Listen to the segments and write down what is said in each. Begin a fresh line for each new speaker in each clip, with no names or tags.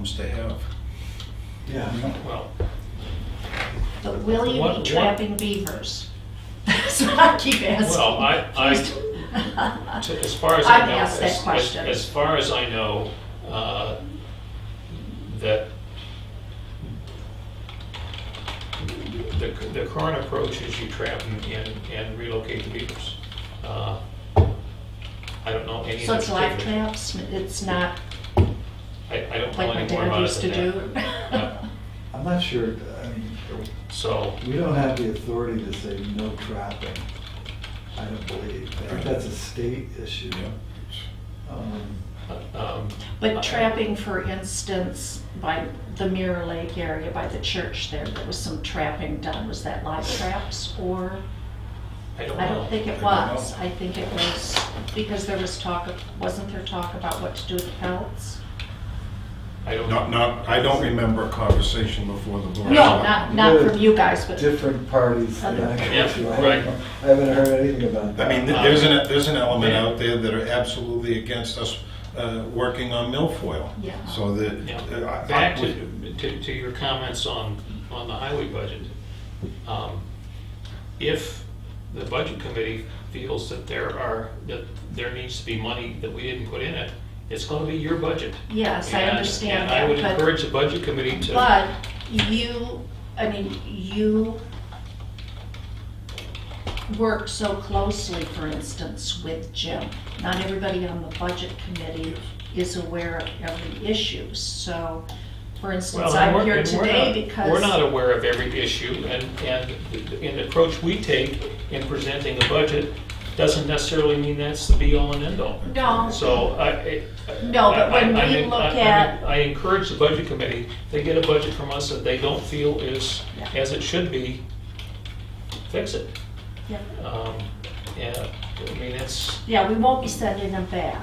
homes to have.
Yeah.
Well,
But will
What-
you
what-
be trapping beavers? So I keep asking.
well, I, I,
I.
to- as far as I
I've
know.
asked that
as- as-
question.
As far as I know, uh, that the, the current approach is you trap and- and, and relocate the beavers. Uh, I don't know any.
So it's
other
live
particular-
traps, it's not
I, I don't
like
know
my
any more
dad
about
used
it than
to do.
that. Yeah.
I'm not sure, I mean,
So,
we don't have the authority to say no trapping, I don't believe. I think that's a state issue. Um,
um. I-
But trapping, for instance, by the Mirror Lake area, by the church there, there was some trapping done. Was that live traps or?
I don't know.
I don't think
I
it
don't
was.
know.
I think it was, because there was talk, of- wasn't there talk about what to do with the pelts?
I don't.
Not, not, I don't remember a conversation before the board.
No, not, not from you guys, but.
Different parties that I go to. I
Yeah, right.
don't know. I haven't heard anything about
I
that.
mean, th- there's an, there's an element out there that are absolutely against us uh, working on milfoil.
Yeah.
So that.
Yeah.
uh, I- I-
Back to, to, to your comments on, on the highway budget. Um, If the budget committee feels that there are, that there needs to be money that we didn't put in it, it's gonna be your budget.
Yes, I
And-
understand
And I
that,
would
but-
encourage the budget committee to.
But you, I mean, you work so closely, for instance, with Jim. Not everybody on the budget committee is aware of every issue, so, for instance,
Well, and
I'm
we're-
here
and we're
today
not-
because.
We're not aware of every issue, and, and the- and the approach we take in presenting a budget doesn't necessarily mean that's the be-all and end-all.
No.
So I. I-
No, but when
I- I- I
we
mean,
look
I- I mean,
at-
I encourage the budget committee, they get a budget from us that they don't feel is,
Yeah.
as it should be, fix it.
Yeah.
Um, Yeah, I mean, it's,
Yeah, we won't be sending them back.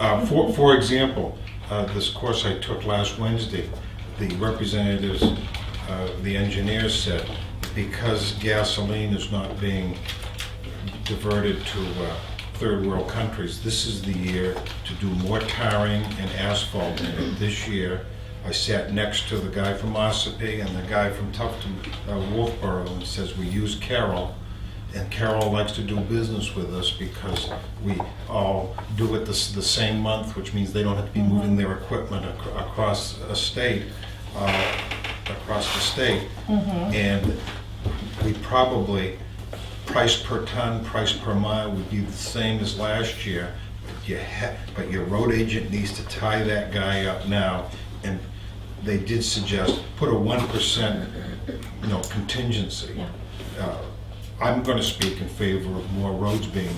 Uh, For, for example, uh, this course I took last Wednesday, the representatives, uh, the engineers said, because gasoline is not being diverted to uh, third world countries, this is the year to do more tarring and asphalt in it. This year, I sat next to the guy from Ossipee and the guy from Tufton, uh, Wolfboro, and says, we use Carroll, and Carol likes to do business with us because we all do it this, the same month, which means they don't have to be moving their equipment ac- across a state, uh, across the state. And we probably, price per ton, price per mile would be the same as last year. But you ha, but your road agent needs to tie that guy up now. And they did suggest, put a one percent, you know, contingency.
Yeah.
Uh, I'm going to speak in favor of more roads being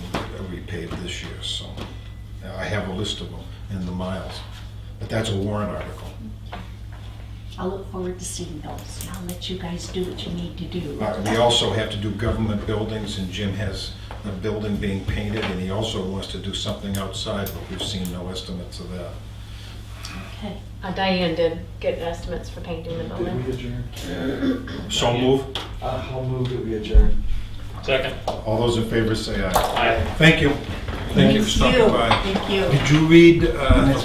repaved this year, so uh, I have a list of them and the miles. But that's a warrant article.
I'll look forward to seeing those, and I'll let you guys do what you need to do.
Uh, We also have to do government buildings, and Jim has a building being painted, and he also wants to do something outside, but we've seen no estimates of that.
Okay.
Uh, Diane did get estimates for painting the building.
Did we adjourn?
So move.
Uh, I'll move that we adjourn.
second,
All those in favor say aye.
I,
Thank you. Thank you for stopping by.
Thank you.
Did you read uh, the